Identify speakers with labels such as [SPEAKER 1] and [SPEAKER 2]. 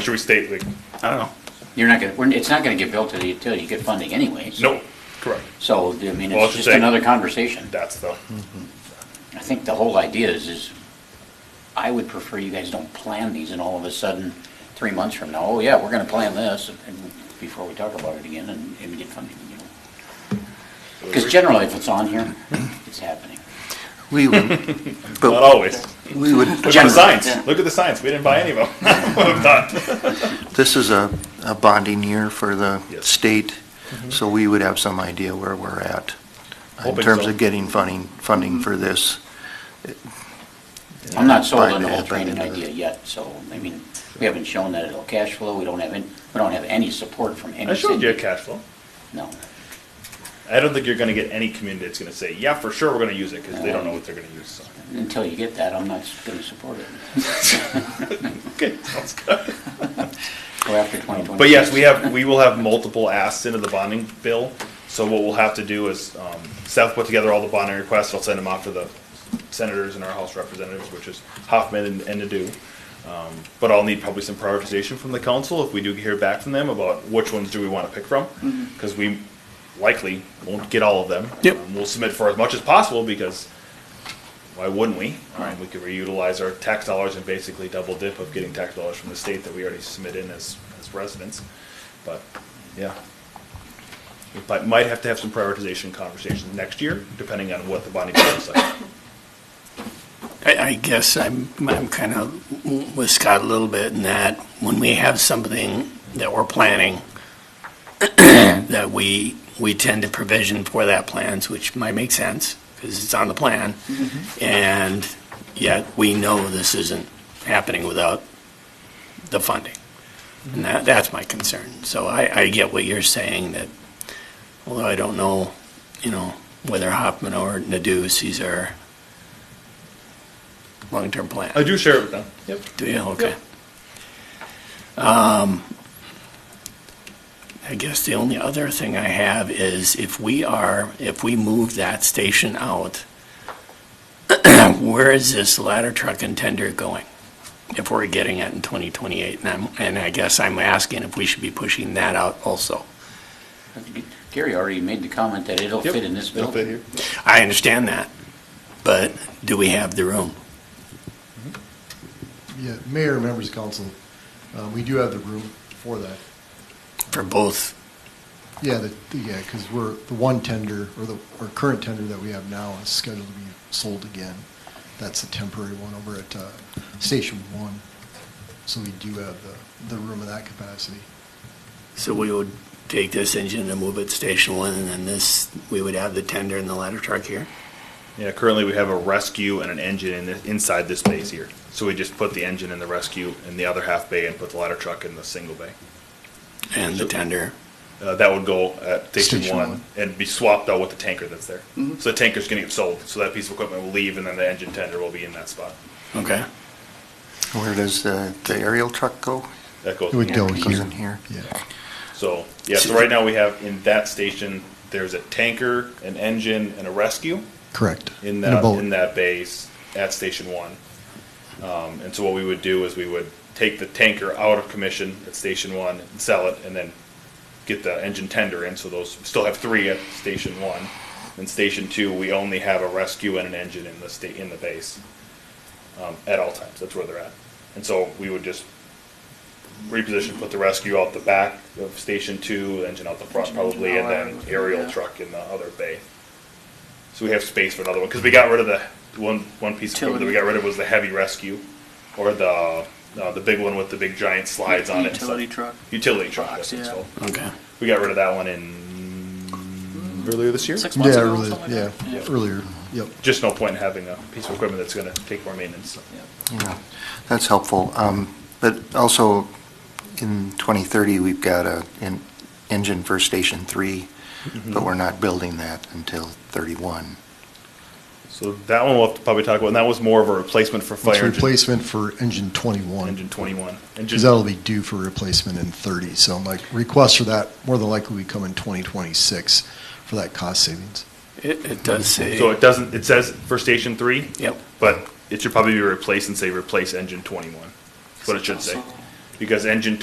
[SPEAKER 1] Should we state like, I don't know.
[SPEAKER 2] You're not gonna, we're- it's not gonna get built until you get funding anyways.
[SPEAKER 1] No, correct.
[SPEAKER 2] So, I mean,
[SPEAKER 1] Well, I
[SPEAKER 2] it's
[SPEAKER 1] should
[SPEAKER 2] just
[SPEAKER 1] say-
[SPEAKER 2] another conversation.
[SPEAKER 1] That's the,
[SPEAKER 2] I think the whole idea is, is I would prefer you guys don't plan these and all of a sudden, three months from now, oh yeah, we're gonna plan this, and before we talk about it again and, and get funding, you know. Because generally, if it's on here, it's happening.
[SPEAKER 3] We would,
[SPEAKER 1] not
[SPEAKER 3] but
[SPEAKER 1] always.
[SPEAKER 3] we would,
[SPEAKER 1] Look at the
[SPEAKER 2] Generally,
[SPEAKER 1] signs.
[SPEAKER 2] yeah.
[SPEAKER 1] Look at the signs. We didn't buy any of them. We're done.
[SPEAKER 3] this is a, a bonding year for the
[SPEAKER 1] Yes. Mm-hmm.
[SPEAKER 3] state, so we would have some idea where we're at in
[SPEAKER 1] Hoping
[SPEAKER 3] terms
[SPEAKER 1] so. Mm-hmm.
[SPEAKER 3] of getting funding, funding for this.
[SPEAKER 2] I'm not sold
[SPEAKER 3] By
[SPEAKER 2] on the
[SPEAKER 3] the-
[SPEAKER 2] whole
[SPEAKER 3] by the
[SPEAKER 2] training
[SPEAKER 3] end of it.
[SPEAKER 2] idea yet, so, I mean, we haven't shown that it'll cash flow, we don't have, any- we don't have any support from any
[SPEAKER 1] I showed you a
[SPEAKER 2] city.
[SPEAKER 1] cash flow.
[SPEAKER 2] No.
[SPEAKER 1] I don't think you're gonna get any community that's gonna say, yeah, for sure, we're gonna use it, because they don't know what they're gonna use, so.
[SPEAKER 2] Until you get that, I'm not gonna support it.
[SPEAKER 1] Okay, sounds good.
[SPEAKER 2] Go after 2026.
[SPEAKER 1] But yes, we have, we will have multiple asks into the bonding bill, so what we'll have to do is, um, Seth put together all the bonding requests, I'll send them off to the senators and our House representatives, which is Hoffman and, and Nadeau. Um, But I'll need probably some prioritization from the council if we do hear back from them about which ones do we wanna pick from, because we likely won't get all of them.
[SPEAKER 3] Yep.
[SPEAKER 1] Um, We'll submit for as much as possible, because why wouldn't we? Um, we could reutilize our tax dollars and basically double dip of getting tax dollars from the state that we already submit in as, as residents. But, yeah. We might- might have to have some prioritization conversations next year, depending on what the bonding bill looks like.
[SPEAKER 4] I, I guess I'm, I'm kind of with Scott a little bit in that when we have something that we're planning, that we, we tend to provision for that plans, which might make sense because it's on the plan. And yet we know this isn't happening without the funding. And that, that's my concern. So I, I get what you're saying that, although I don't know, you know, whether Hoffman or Nadeau sees our long-term plan.
[SPEAKER 1] I do share it with them. Yep.
[SPEAKER 4] Do you? Okay. Um, I guess the only other thing I have is if we are, if we move that station out, where is this ladder truck and tender going? If we're getting it in 2028, and I'm, and I guess I'm asking if we should be pushing that out also.
[SPEAKER 2] Gary already made the comment that it'll fit in this
[SPEAKER 1] It'll fit
[SPEAKER 2] building.
[SPEAKER 1] here.
[SPEAKER 4] I understand that, but do we have the room?
[SPEAKER 5] Yeah, mayor, members of council, um, we do have the room for that.
[SPEAKER 4] For both,
[SPEAKER 5] Yeah, the, the- yeah, because we're, the one tender, or the, our current tender that we have now is scheduled to be sold again. That's a temporary one over at, uh, Station One. So we do have the, the room in that capacity.
[SPEAKER 4] so we would take this engine and move it to Station One, and then this, we would have the tender and the ladder truck here?
[SPEAKER 1] Yeah, currently we have a rescue and an engine in, the- inside this space here. So we just put the engine in the rescue in the other half bay and put the ladder truck in the single bay.
[SPEAKER 4] And the tender.
[SPEAKER 1] Uh, that would go at station,
[SPEAKER 5] Station
[SPEAKER 1] one,
[SPEAKER 5] one.
[SPEAKER 1] and be swapped out with the tanker that's there. So the tanker's going to get sold. So that piece of equipment will leave, and then the engine tender will be in that spot.
[SPEAKER 4] Okay.
[SPEAKER 3] Where does the, the aerial truck go?
[SPEAKER 1] That goes.
[SPEAKER 5] It would go
[SPEAKER 3] Goes
[SPEAKER 5] here.
[SPEAKER 3] in here.
[SPEAKER 5] Yeah,
[SPEAKER 1] So yeah. So right now we have in that station there's a tanker, an engine, and a rescue
[SPEAKER 5] correct.
[SPEAKER 1] in
[SPEAKER 5] And
[SPEAKER 1] that
[SPEAKER 5] a boat.
[SPEAKER 1] in that base at station one. Um, and so what we would do is we would take the tanker out of commission at station one and sell it, and then get the engine tender in. So those we still have three at station one. And station two, we only have a rescue and an engine in the state in the base um, at all times. That's where they're at. And so we would just reposition, put the rescue out the back of station two, engine out the front probably, and then aerial truck in the other bay. So we have space for another one, because we got rid of the, one, one piece of equipment that we got rid of was the heavy rescue, or the, uh, the big one with the big giant slides on it. and stuff.
[SPEAKER 6] Utility truck.
[SPEAKER 1] Utility truck, that's
[SPEAKER 6] yeah.
[SPEAKER 1] what's called.
[SPEAKER 4] Okay.
[SPEAKER 1] We got rid of that one in. Earlier this year?
[SPEAKER 6] Six months
[SPEAKER 5] Yeah,
[SPEAKER 6] ago,
[SPEAKER 5] earlier,
[SPEAKER 6] something
[SPEAKER 5] yeah,
[SPEAKER 6] like
[SPEAKER 5] earlier, yep.
[SPEAKER 1] Just no point in having a piece of equipment that's gonna take more maintenance.
[SPEAKER 6] that. Yeah.
[SPEAKER 3] Yeah, that's helpful. Um, But also, in 2030, we've got a an engine for Station 3,
[SPEAKER 1] Mm-hmm.
[SPEAKER 3] but we're not building that until 31.
[SPEAKER 1] So that one we'll have to probably talk about, and that was more of a replacement for
[SPEAKER 5] It's
[SPEAKER 1] fire engine,
[SPEAKER 5] replacement for engine twenty-one.
[SPEAKER 1] engine twenty-one.
[SPEAKER 5] Because
[SPEAKER 1] Engine,
[SPEAKER 5] that'll be due for replacement in 30, so my request for that more than likely will come in 2026 for that cost savings.
[SPEAKER 4] It, it does say.
[SPEAKER 1] so it doesn't, it says for station three,
[SPEAKER 4] Yep.
[SPEAKER 1] but it should probably be replaced and say replace engine twenty-one. That's what it should say. because engine